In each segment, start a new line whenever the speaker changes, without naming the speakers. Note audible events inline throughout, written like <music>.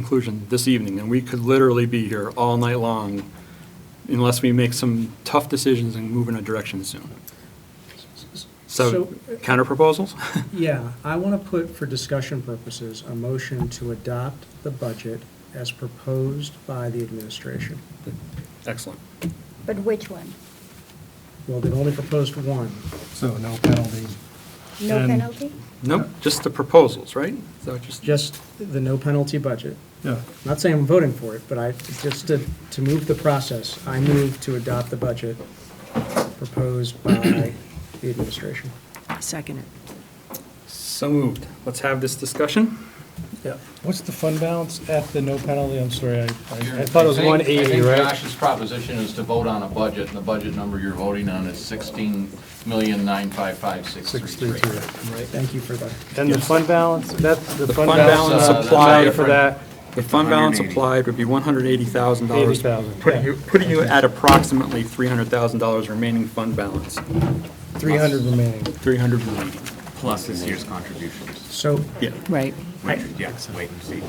conclusion this evening, and we could literally be here all night long unless we make some tough decisions and move in a direction soon. So
So-
uh,
counter proposals?
<laughs>
Yeah, I want to put for discussion purposes, a motion to adopt the budget as proposed by the administration.
Excellent.
But which one?
Well, they've only proposed one.
So no penalty.
No
And-
penalty?
Nope, just the proposals, right? So just,
just the no penalty budget.
Yeah,
I'm Not saying I'm voting for it, but I, just to, to move the process, I move to adopt the budget proposed by the administration.
Second it.
so moved. Let's have this discussion.
Yeah.
what's the fund balance at the no penalty? I'm sorry, I, I I thought it was
think-
one eighty,
I think
right?
Josh's proposition is to vote on a budget, and the budget number you're voting on is sixteen million nine five five six
Six
three
three
three.
three.
Thank you for that.
And the fund balance, that's the
fund
fund balance
balance, uh, that's
applied for
different.
that,
The fund balance applied would be $180,000.
$80,000,
Putting
yeah.
you, putting you at approximately $300,000 remaining fund balance,
three hundred remaining.
300 remaining.
plus this year's contributions,
So
Yeah.
Right.
which, yes, wait and see.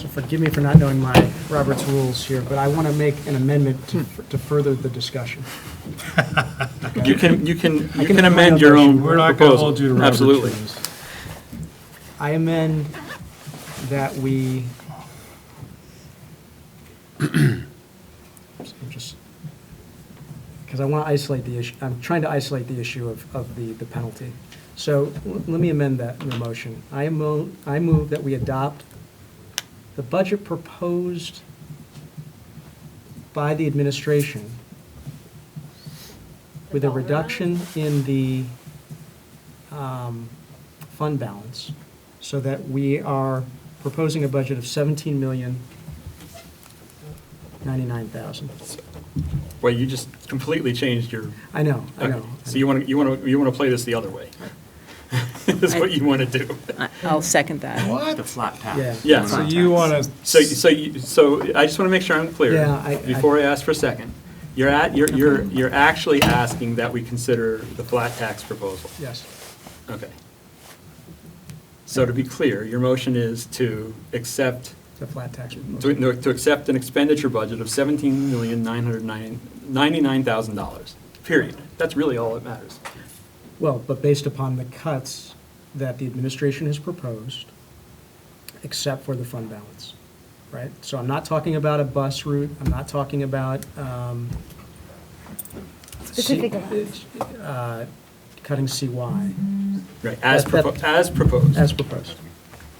So forgive me for not knowing my Robert's rules here, but I want to make an amendment to to further the discussion.
You can, you can, you
can
can amend your own
We're not gonna
proposal.
hold you to Robert's
Absolutely.
rules.
I amend that we, <clears throat> I'm just, because I want to isolate the issue, I'm trying to isolate the issue of, of the, the penalty. So l- let me amend that in the motion. I mo, I move that we adopt the budget proposed by the administration with a reduction in the um, fund balance, so that we are proposing a budget of seventeen million ninety-nine thousand.
Well, you just completely changed your,
I know, I
okay.
know.
So you want to, you want to, you want to play this the other way? <laughs> Is what you want to do.
I- I'll second that.
The flat tax.
Yeah.
So you want
So, so, you- so I just want to make sure I'm clear.
Yeah, I- I-
Before I ask for a second, you're at, you're, you're, you're actually asking that we consider the flat tax proposal.
Yes,
Okay. So to be clear, your motion is to accept,
the flat tax
to,
proposal.
no, to accept an expenditure budget of seventeen million, nine hundred nine, ninety-nine thousand dollars, period. That's really all that matters.
Well, but based upon the cuts that the administration has proposed, except for the fund balance, right? So I'm not talking about a bus route, I'm not talking about, um,
Specific amount.
uh, cutting CY,
Right, as,
That- that-
propo- as proposed.
as proposed.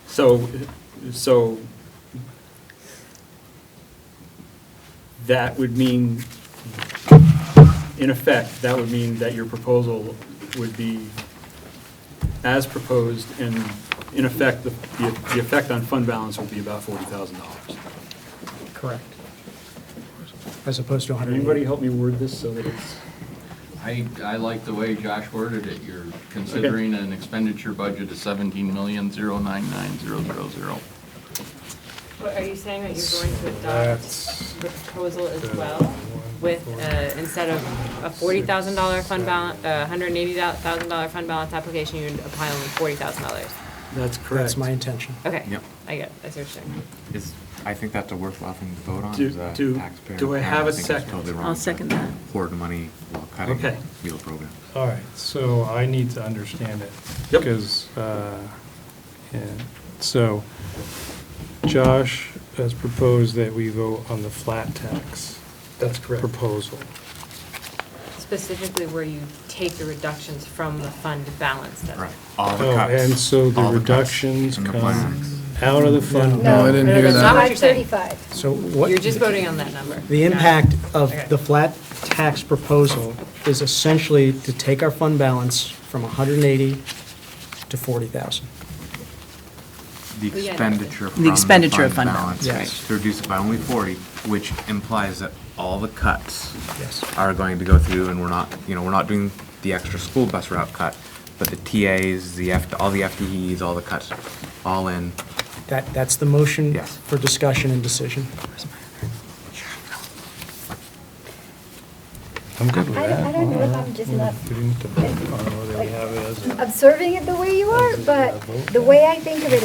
So, so that would mean, in effect, that would mean that your proposal would be as proposed, and in effect, the, the the effect on fund balance would be about forty thousand dollars.
Correct. As opposed to 100.
Anybody help me word this so that it's,
I, I like the way Josh worded it. You're considering an expenditure budget of seventeen million zero nine nine zero zero zero.
But Are you saying that you're going to
That's-
adopt the proposal as well with, uh, instead of a forty thousand dollar fund balance, a hundred and eighty thousand dollar fund balance application, you'd apply only forty thousand dollars?
that's correct?
That's my intention.
Okay.
Yep.
I get, it. I see what you're saying.
Is, I think that's a worthwhile thing to vote on
Do-
as a
do-
taxpayer.
do I have a
think it's
second?
totally wrong
I'll
to
second that.
Hoard money while cutting
Okay.
meal program.
All right, so I need to understand it.
Yep.
Because, uh, and, so, Josh has proposed that we vote on the flat tax
That's correct.
proposal.
Specifically where you take the reductions from the fund balance then.
Right. All the
Oh,
cuts.
and so the
all cuts
reductions
and the
come-
plans.
Out of the fund
No,
balance.
I didn't
hear that. not what you're saying.
535.
So what,
You're just voting on that number.
the
Got it.
impact of
Okay.
the flat tax proposal is essentially to take our fund balance from 180 to 40,000.
The
Well, yeah,
expenditure from
The expenditure
the
of
fund
fund balance,
balance.
Yes.
To reduce it by only forty, which implies that all the cuts
Yes.
are going to go through, and we're not, you know, we're not doing the extra school bus route cut, but the TAs, the F, all the FTEs, all the cuts, all in.
That, that's the motion
Yes.
for discussion and decision.
I'm good with
I don't- I
that.
don't What if I'm just not
You didn't have to vote on whether we have it as a.
observing it the way you are? But the way I think of it